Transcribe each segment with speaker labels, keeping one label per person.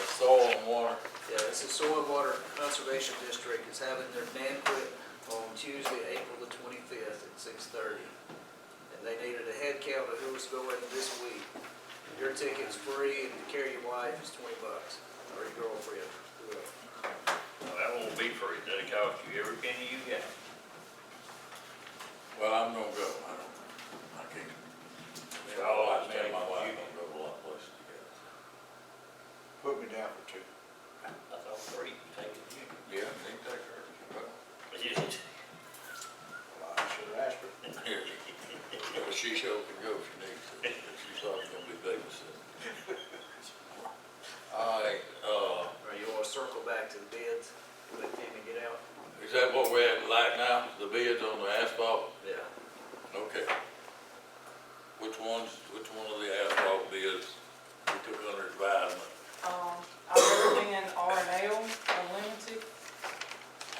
Speaker 1: and water.
Speaker 2: Yeah, it's the Soil Water Conservation District is having their banquet on Tuesday, April the twenty-fifth at six thirty. And they needed a head count of who was going this week. Your ticket's free and to carry your wife is twenty bucks, or your girlfriend, whoever.
Speaker 3: Well, that won't be free, that'll cost you every penny you got.
Speaker 1: Well, I'm gonna go, I don't, I can't.
Speaker 3: It's all I
Speaker 1: Me and my
Speaker 3: take.
Speaker 1: wife gonna go a lot of places together.
Speaker 4: Put me down for two.
Speaker 3: I thought free, take it, you.
Speaker 1: Yeah, they can take her. Well,
Speaker 3: But you just-
Speaker 4: Well, I should have asked her.
Speaker 1: Here, Well, she sure can go if she needs to, if she's always gonna be babysitting. All right, uh,
Speaker 2: Or you wanna circle back to the bids, let them get out?
Speaker 1: is that what we're at like now, the bids on the asphalt?
Speaker 2: Yeah.
Speaker 1: Okay. Which ones, which one of the asphalt bids we took under advisement?
Speaker 5: Um, I recommend R and L Unlimited,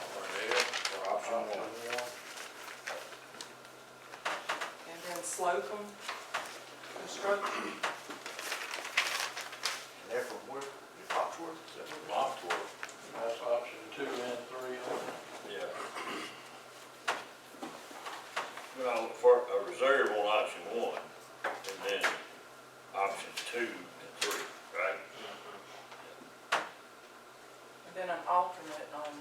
Speaker 1: Arnell?
Speaker 4: For option one.
Speaker 5: and then Slocum Construction,
Speaker 4: And they're from where? Your Foxworth, is that where?
Speaker 1: Lockport.
Speaker 6: That's option two and three on it.
Speaker 1: Yeah.
Speaker 3: Well, for a reserve on option one, and then option two and three, right?
Speaker 5: and then an alternate on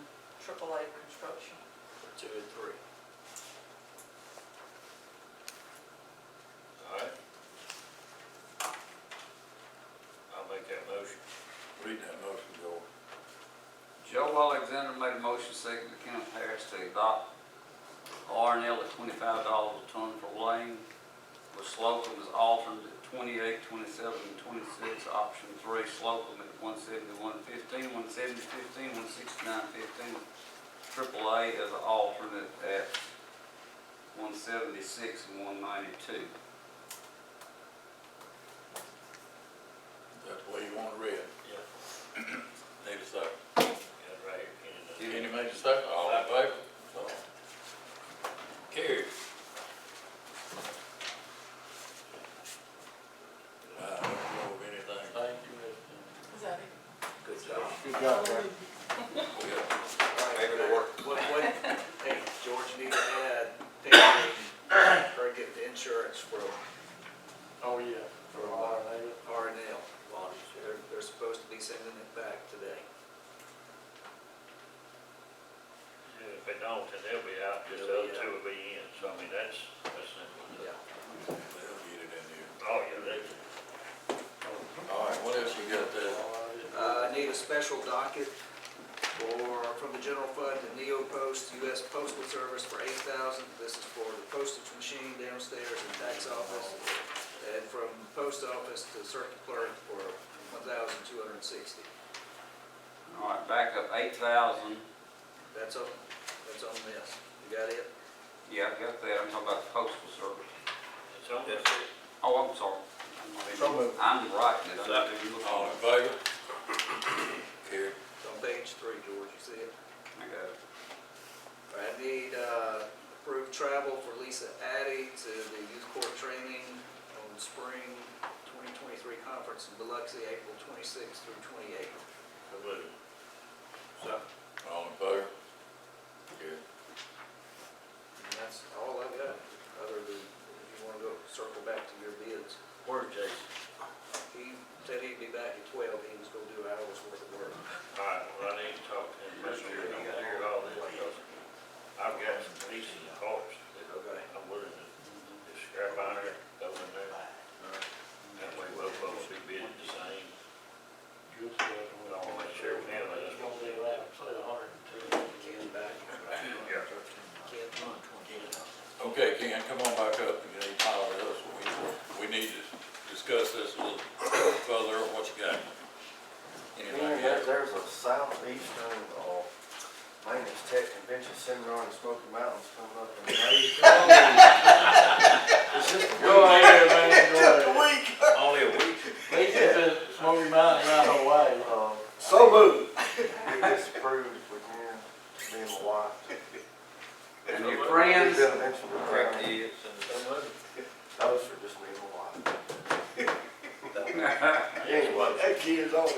Speaker 5: AAA Construction.
Speaker 2: Two and three.
Speaker 3: All right? I'll make that motion.
Speaker 1: Read that motion, George.
Speaker 7: Joe Alexander made a motion, second by Kenneth Harris, to adopt R and L at twenty-five dollars a ton for lane, with Slocum as alternate at twenty-eight, twenty-seven, and twenty-six, option three, Slocum at one seventy-one fifteen, one seventy fifteen, one sixty-nine fifteen, triple A as an alternate at one seventy-six and one ninety-two.
Speaker 1: That's the way you want it read.
Speaker 3: Yeah.
Speaker 1: Need a second.
Speaker 3: Got it right here, Kenny does.
Speaker 1: Any major second, all in favor? So, Carried. I don't know of anything. Thank you.
Speaker 5: Is that it?
Speaker 2: Good job.
Speaker 4: Good job, Brad.
Speaker 1: Maybe it'll work.
Speaker 2: What, what, hey, George, you need to add, pay, or get the insurance from
Speaker 6: Oh, yeah, for R and A.
Speaker 2: R and L. They're, they're supposed to be sending it back today.
Speaker 3: Yeah, If they don't, then they'll be out, just the other two will be in, so I mean, that's, that's simple.
Speaker 2: Yeah.
Speaker 1: They'll get it in here.
Speaker 3: Oh, yeah, they,
Speaker 1: All right, what else you got there?
Speaker 2: Uh, I need a special docket for, from the general fund to Neo Post, US Postal Service for eight thousand. This is for the postage machine downstairs and tax office. And from post office to circuit clerk for one thousand two hundred and sixty.
Speaker 7: All right, back up eight thousand,
Speaker 2: That's on, that's on this. You got it?
Speaker 7: yeah, I got that, I'm talking about the postal service.
Speaker 3: it's almost,
Speaker 7: Oh, I'm sorry.
Speaker 4: So moved.
Speaker 7: I'm right, did I do you look
Speaker 1: All
Speaker 7: on
Speaker 1: in
Speaker 7: it?
Speaker 1: favor? Carried.
Speaker 2: It's on page three, George, you see it?
Speaker 7: I got it.
Speaker 2: I need uh, approved travel for Lisa Addy to the youth court training on spring 2023 conference in Biloxi, April 26th through 28th.
Speaker 3: I believe.
Speaker 1: All in favor? Carried.
Speaker 2: And that's all I've got, other than if you want to go circle back to your bids.
Speaker 3: Where's Jason?
Speaker 2: He said he'd be back at 12, he was going to do hours worth of work.
Speaker 3: All right, well, I need to talk to him, make sure he don't hear all this, because I've got some pieces of parts that
Speaker 2: Okay.
Speaker 3: I'm willing to just scrap on there, throw in there. That way we'll both be bidding the same.
Speaker 6: Don't Gonna be allowed, say a hundred and two.
Speaker 2: Ken's back.
Speaker 3: Yeah.
Speaker 2: Ken,
Speaker 1: Okay, Ken, come on back up, you need to follow us, we, we need to discuss this a little further, what you got?
Speaker 8: Yeah,
Speaker 1: Anything
Speaker 8: there-
Speaker 1: else?
Speaker 8: there's a southeastern, uh, maintenance tech convention seminar in Smoky Mountains coming up in May. It's just a
Speaker 6: Go ahead, man, go ahead.
Speaker 8: week.
Speaker 3: Only a week.
Speaker 6: They just said Smoky Mountain right away.
Speaker 8: Uh,
Speaker 2: So moved.
Speaker 8: we disapproved if we can, me and my wife.
Speaker 7: And your
Speaker 8: We've
Speaker 7: friends,
Speaker 8: been eventually around.
Speaker 7: kids
Speaker 8: Those are just me and my wife.
Speaker 7: and.
Speaker 8: Anyway.
Speaker 4: That kid is on